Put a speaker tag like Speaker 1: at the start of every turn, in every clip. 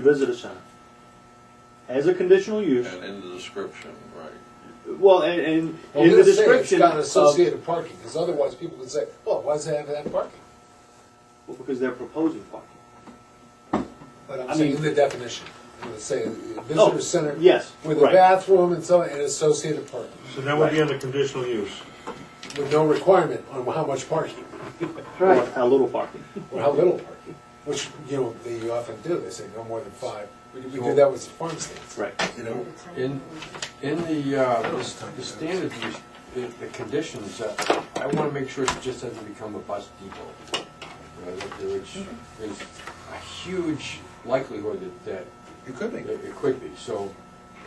Speaker 1: visitor center. As a conditional use,
Speaker 2: And in the description, right.
Speaker 1: well, and, and
Speaker 3: Well,
Speaker 1: in the
Speaker 3: we'll say
Speaker 1: description,
Speaker 3: It's got an
Speaker 1: of-
Speaker 3: associated parking, because otherwise people could say, well, why does it have that parking?
Speaker 1: well, because they're proposing parking.
Speaker 3: But
Speaker 1: I
Speaker 3: I'm saying
Speaker 1: mean-
Speaker 3: in the definition, it would say
Speaker 1: Oh,
Speaker 3: visitor center.
Speaker 1: yes,
Speaker 3: With a
Speaker 1: right.
Speaker 3: bathroom and so, and associated parking,
Speaker 4: So that would be under conditional use.
Speaker 3: with no requirement on how much parking,
Speaker 1: Right. Or a little parking.
Speaker 3: or how little parking. Which, you know, they often do, they say no more than five. We we do that with farm stands.
Speaker 1: Right.
Speaker 3: You know,
Speaker 5: In, in the, uh, the the standards, the, the conditions, uh, I want to make sure it just doesn't become a bus depot. You know, that there- Which is a huge likelihood that, that
Speaker 2: You could
Speaker 5: that it could be, so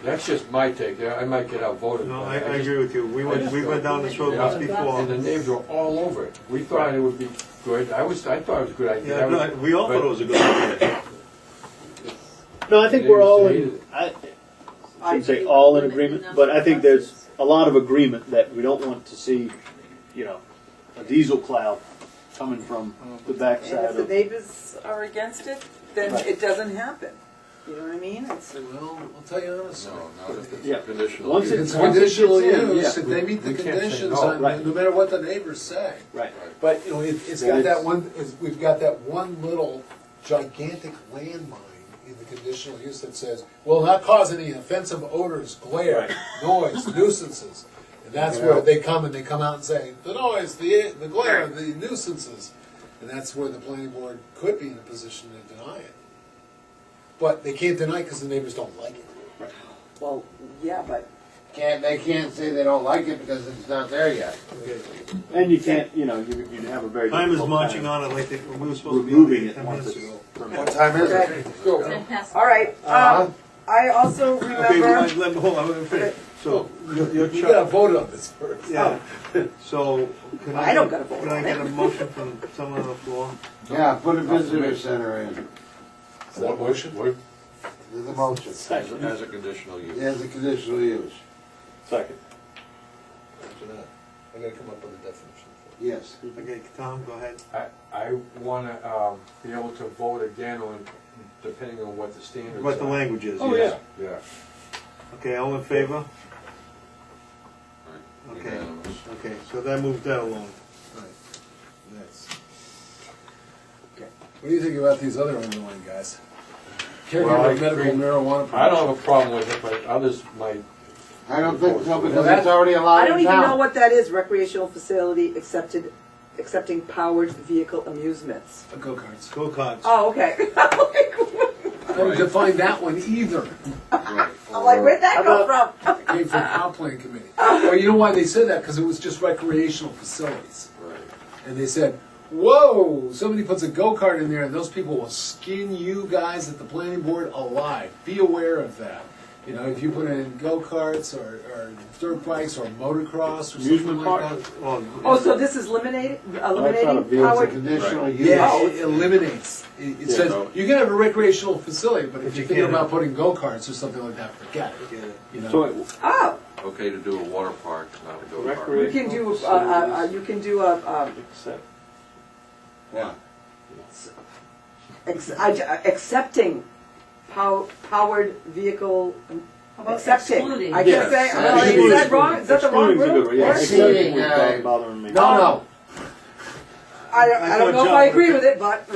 Speaker 5: that's just my take, Yeah, I might get outvoted.
Speaker 4: No,
Speaker 5: but
Speaker 4: I, I
Speaker 5: just-
Speaker 4: agree with you. We went, we went down this road once
Speaker 5: And the
Speaker 4: before.
Speaker 5: names were all over it. We thought it would be good, I was, I thought it was a good idea.
Speaker 4: Yeah, no, we all thought it was a good idea.
Speaker 1: No, I think we're all in. I I shouldn't say all in agreement, but I think there's a lot of agreement that we don't want to see, you know, a diesel cloud coming from the
Speaker 6: And
Speaker 1: backside
Speaker 6: if the
Speaker 1: of.
Speaker 6: neighbors are against it, then it doesn't happen. You know what I mean? It's,
Speaker 3: well, I'll tell you honestly.
Speaker 2: No, not if
Speaker 1: Yeah.
Speaker 2: it's conditional
Speaker 1: Once
Speaker 2: use.
Speaker 3: If it's
Speaker 1: Once it's
Speaker 3: conditional
Speaker 1: in,
Speaker 3: use,
Speaker 1: yeah.
Speaker 3: if they meet
Speaker 5: We
Speaker 3: the
Speaker 5: can't say
Speaker 3: conditions,
Speaker 5: no,
Speaker 3: on-
Speaker 1: right.
Speaker 3: no matter what the neighbors say.
Speaker 1: Right.
Speaker 3: But, you know, it, it's
Speaker 1: Then
Speaker 3: got that
Speaker 1: it's-
Speaker 3: one, it's- we've got that one little gigantic landmine in the conditional use that says, will not cause any offensive odors, glare, noise, nuisances. And that's where they come and they come out and say, the noise, the, the glare, the nuisances. And that's where the planning board could be in a position to deny it. But they can't deny it because the neighbors don't like it.
Speaker 6: well, yeah, but
Speaker 7: Can't, they can't say they don't like it because it's not there yet.
Speaker 1: And you can't, you know, you you have a very.
Speaker 4: Time is
Speaker 1: difficult
Speaker 4: marching
Speaker 1: time
Speaker 4: on it like they- we were supposed to be on
Speaker 1: Removing
Speaker 4: it
Speaker 1: it
Speaker 4: ten
Speaker 1: once
Speaker 4: minutes
Speaker 1: it's.
Speaker 4: ago.
Speaker 7: What time is it?
Speaker 6: Okay.
Speaker 5: Go.
Speaker 6: all right.
Speaker 1: Uh-huh.
Speaker 6: Um, I also
Speaker 4: Okay, well,
Speaker 6: remember.
Speaker 4: let, let, hold on, let me finish. So, your- your
Speaker 3: You gotta
Speaker 4: chart,
Speaker 3: vote on this first.
Speaker 4: yeah. So, can I?
Speaker 6: Oh. I don't gotta vote
Speaker 4: Can I
Speaker 6: on
Speaker 4: get
Speaker 6: it.
Speaker 4: a motion from someone on the floor?
Speaker 7: Yeah, put a visitor center in,
Speaker 3: Is that a motion?
Speaker 5: What-
Speaker 7: there's a motion,
Speaker 2: As a- as a conditional use.
Speaker 7: there's a conditional use,
Speaker 1: Second.
Speaker 3: I gotta come up with a definition for it.
Speaker 7: yes.
Speaker 4: Okay, Tom, go ahead.
Speaker 5: I, I want to be able to vote again on, depending on what the standards are.
Speaker 4: What the language is,
Speaker 1: Oh,
Speaker 4: yes.
Speaker 5: Yeah.
Speaker 4: Okay, all in favor?
Speaker 2: Right.
Speaker 4: Okay.
Speaker 2: Unanimous.
Speaker 4: Okay, so that moved that along.
Speaker 3: Right. Nice. What do you think about these other underlying guys?
Speaker 5: Well, I
Speaker 3: Caregiver medical
Speaker 5: agree.
Speaker 3: marijuana.
Speaker 5: I
Speaker 3: prevention.
Speaker 5: don't have a problem with it, but others might.
Speaker 7: I don't think so, because
Speaker 3: that's-
Speaker 7: it's already
Speaker 6: I
Speaker 7: allowed
Speaker 6: don't
Speaker 7: in
Speaker 6: even know
Speaker 7: town.
Speaker 6: what that is. Recreational facility accepted, accepting powered vehicle amusements.
Speaker 3: Uh, Go-karts.
Speaker 4: Go cards.
Speaker 6: Oh, okay. I'm like,
Speaker 3: I don't define that one either.
Speaker 7: Right.
Speaker 6: I'm like, where'd that come from?
Speaker 3: It came from comp plan committee. Well, you know why they said that? Because it was just recreational facilities.
Speaker 2: Right.
Speaker 3: And they said, whoa, somebody puts a go-kart in there and those people will skin you guys at the planning board alive. Be aware of that. You know, if you put in go-karts or, or dirt bikes or motocross or something
Speaker 1: Amusement
Speaker 3: like that.
Speaker 1: park.
Speaker 6: Oh,
Speaker 4: Oh,
Speaker 6: so this is eliminated,
Speaker 1: not a vehicle,
Speaker 6: eliminating
Speaker 1: it's a
Speaker 6: powered.
Speaker 7: Conditional use.
Speaker 3: Yeah, it eliminates. It, it says
Speaker 2: no.
Speaker 3: you can have a recreational facility, but if
Speaker 4: you
Speaker 3: you're thinking
Speaker 4: can't
Speaker 3: about putting go karts or something like that, forget it.
Speaker 4: Forget it.
Speaker 3: You know,
Speaker 1: So it-
Speaker 6: Oh,
Speaker 2: Okay to do a water park, not a go
Speaker 6: you
Speaker 1: Recreation.
Speaker 2: kart.
Speaker 6: can do, uh, uh, uh, you can do a, um,
Speaker 1: except
Speaker 7: Yeah.
Speaker 6: Ex- I, uh, accepting pow- powered vehicle. um, Accepting.
Speaker 8: excluding?
Speaker 6: I can't say,
Speaker 2: Yes.
Speaker 6: well, is that wrong? Is that the wrong
Speaker 1: excluding's a good
Speaker 6: word?
Speaker 1: word, yeah,
Speaker 7: Excluding,
Speaker 1: excluding was
Speaker 7: uh,
Speaker 1: bothering me.
Speaker 3: no, no.
Speaker 6: I don't, I
Speaker 4: I
Speaker 6: don't
Speaker 4: thought
Speaker 6: know if I
Speaker 4: John
Speaker 6: agree
Speaker 4: would-
Speaker 6: with it, but.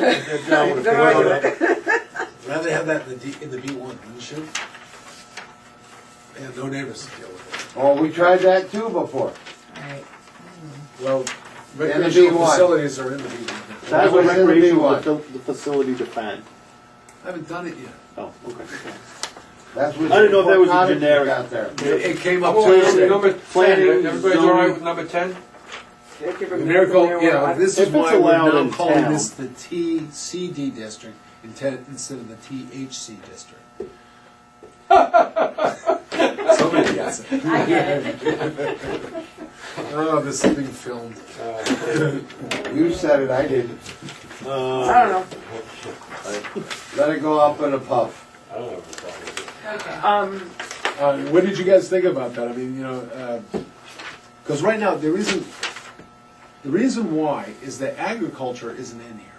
Speaker 4: John would
Speaker 6: They're
Speaker 4: agree.
Speaker 6: arguing.
Speaker 3: Rather have that in the D, in the B one, wouldn't you? And no neighbors to deal with
Speaker 7: Well, we tried that too before.
Speaker 3: it. Well,
Speaker 7: In the
Speaker 3: recreational
Speaker 7: B1.
Speaker 3: facilities are in the B one.
Speaker 1: That's
Speaker 7: That
Speaker 1: what
Speaker 7: was in the
Speaker 1: recreational,
Speaker 7: B1.
Speaker 1: the the facility defined.
Speaker 3: I haven't done it yet.
Speaker 1: Oh, okay.
Speaker 7: That's what.
Speaker 1: I didn't know if that was a
Speaker 7: cottage we
Speaker 1: generic-
Speaker 7: Got there.
Speaker 3: It, it came
Speaker 5: Oh,
Speaker 3: up Tuesday.
Speaker 5: Number
Speaker 1: Planning,
Speaker 5: ten, everybody's all right
Speaker 1: zoning.
Speaker 5: with number ten?
Speaker 3: The miracle, yeah, this is
Speaker 1: If it's
Speaker 3: why we're
Speaker 1: allowed
Speaker 3: now
Speaker 1: in
Speaker 3: calling
Speaker 1: town.
Speaker 3: this the TCD district instead instead of the THC district. Somebody gets it.
Speaker 8: I get it.
Speaker 3: Oh, this is being filmed.
Speaker 7: You said it, I didn't.
Speaker 6: I don't
Speaker 7: Let it go up in a puff.
Speaker 5: I don't have a problem with it.
Speaker 8: Okay.
Speaker 6: know. Um,
Speaker 3: Uh, what did you guys think about that? I mean, you know, uh, because right now there isn't. The reason why is that agriculture isn't in here.